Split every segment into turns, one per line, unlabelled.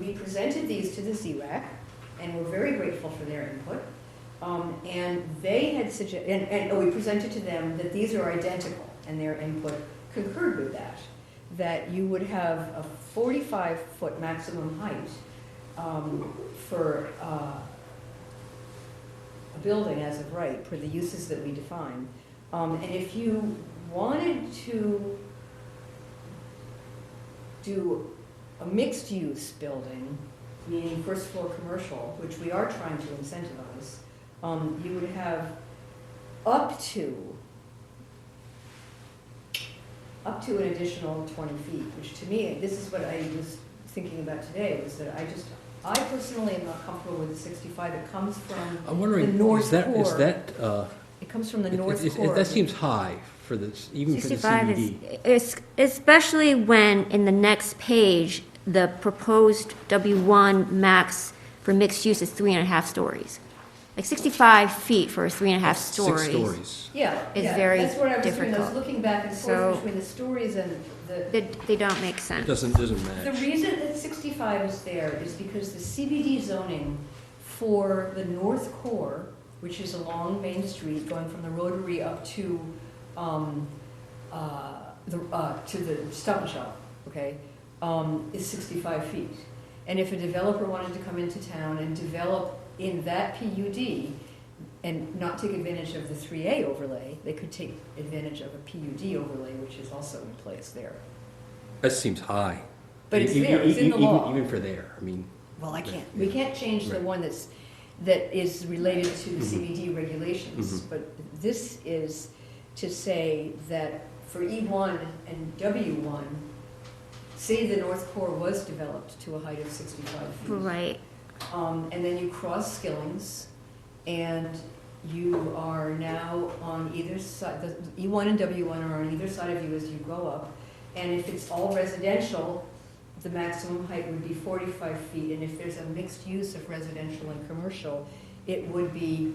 we presented these to the ZRAC, and we're very grateful for their input. Um, And they had suggested, and, and oh, we presented to them that these are identical, and their input concurred with that, that you would have a 45-foot maximum height um, for uh, a building as of right, for the uses that we define. Um, And if you wanted to do a mixed-use building, meaning first floor commercial, which we are trying to incentivize, um, you would have up to, up to an additional twenty feet, which to me, this is what I was thinking about today, was that I just, I personally am not comfortable with the sixty-five, it comes from,
I'm
The
wondering,
North
is that, is
Core.
that, uh,
it comes from the
it- it-
north
it-
core.
that seems high for this, even for the
65 is,
CBD.
es- especially when in the next page, the proposed W1 max for mixed use is three and a half stories. Like 65 feet for three and a half stories.
Six stories.
Yeah,
is
yeah,
very
that's what I was doing, I was
difficult.
looking back and
So-
forth between the stories and the,
They, they don't make sense.
Doesn't, doesn't
The
match.
reason that 65 is there is because the CBD zoning for the North Core, which is along Main Street, going from the Rotary up to, um, uh, the, uh, to the Stop and Shop, okay, um, is 65 feet. And if a developer wanted to come into town and develop in that PUD and not take advantage of the 3A overlay, they could take advantage of a PUD overlay, which is also in place there.
That seems high.
But it's
E- e-
there, it's in the
e- even-
law.
Even for there, I mean,
Well, I can't, we can't change the
Right.
one that's, that is related to the
Mhm.
CBD regulations,
Mhm.
but this is to say that for E1 and W1, say the North Core was developed to a height of 65 feet.
Right.
Um, and then you cross Skillings, and you are now on either side, the E1 and W1 are on either side of you as you go up. And if it's all residential, the maximum height would be forty-five feet, and if there's a mixed use of residential and commercial, it would be,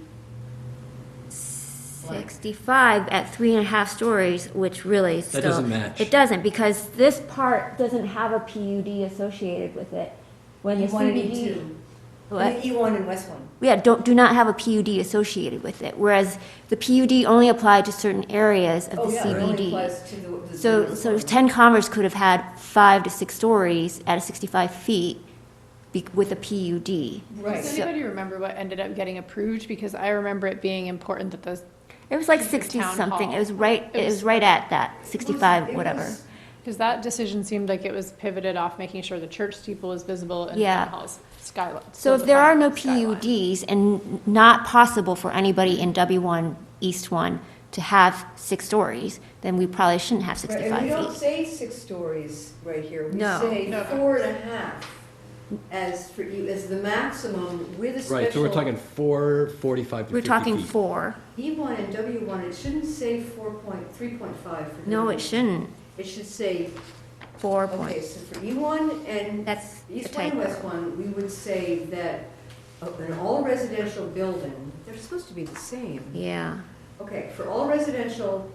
65 at three and a half stories, which really still.
doesn't match.
It doesn't, because this part doesn't have a PUD associated with it. When the
E1 E and
CBD.
E2.
What?
And E1 and West E One.
Yeah, don't, do not have a PUD associated with it, whereas the PUD only applied to certain areas of
Oh,
the
yeah, it only
CBD.
applies to the- the-
So,
the-
so ten Commerce could have had five to six stories at a sixty-five feet be- with a PUD.
Right.
Does anybody remember what ended up getting approved? Because I remember it being important that those,
It was like
Like the town
sixty-something, it
hall.
was right,
It
it was
was-
right at that,
It
sixty-five,
was-
whatever.
because that decision seemed like it was pivoted off making sure the church steeple is visible and
Yeah.
town hall's skyline.
So if there are no
skyline.
PUDs and not possible for anybody in W one, East one, to have six stories, then we probably shouldn't have
Right, And we don't
sixty-five feet.
say six stories right here. We
No.
say
No, no.
four and a half as for, you as the maximum with a special.
right, so we're talking four, forty-five to
We're
fifty
talking
feet.
four.
E one and W one, it shouldn't say four point, three point five for.
No,
W1.
it shouldn't.
It should say,
Four
okay,
point.
so for E one and
That's a
East one and West
typo.
one, we would say that of an all residential building, they're supposed to be the same.
Yeah.
Okay, for all residential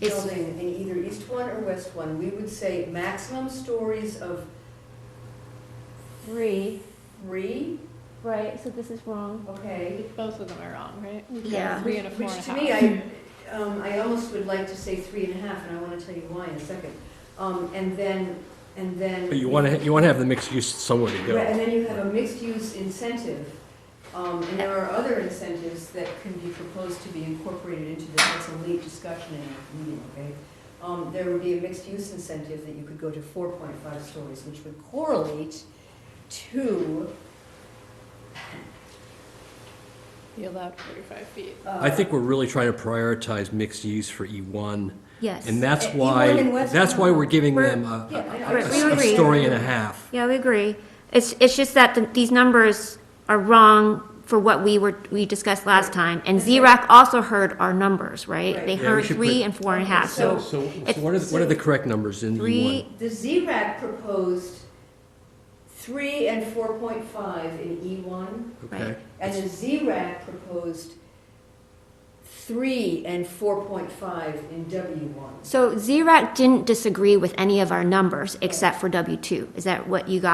It's-
building in either east one or west one, we would say maximum stories of
Three.
three,
Right, so this is wrong.
okay?
Both of them are wrong, right? We've got
Yeah.
Three and a four
Which
and a
to me,
half.
I, um, I almost would like to say three and a half, and I want to tell you why in a second. Um, and then, and then.
But you wanna, ha- you wanna have the mixed use somewhere to
Right, And
go.
then you have a mixed-use incentive, um, and there are other incentives that can be proposed to be incorporated into this, that's a late discussion in our meeting, okay? Um, there would be a mixed-use incentive that you could go to four point five stories, which would correlate to,
You allowed forty-five feet.
uh.
I think we're really trying to prioritize mixed use for E one,
Yes.
and that's
E1 E and
why,
West
that's why we're
Vermont.
giving
We're-
them a,
Yeah, I know.
a- a-
We
a
agree.
story and a half.
Yeah, we agree. It's, it's just that the- these numbers are wrong for what we were, we discussed last time. And
That's
Z-RAC also heard our numbers, right?
Right.
They
Yeah, we
heard
should
three
put-
and four and a
Okay,
half,
So,
so
so
it's-
what are, the- what are the correct numbers in E E1?
three,
The ZRAC proposed three and four point five in E one.
Okay,
And the ZRAC proposed three and four point five in W one.
so Z-RAC didn't disagree with any of our numbers except for W two. Is that what you got?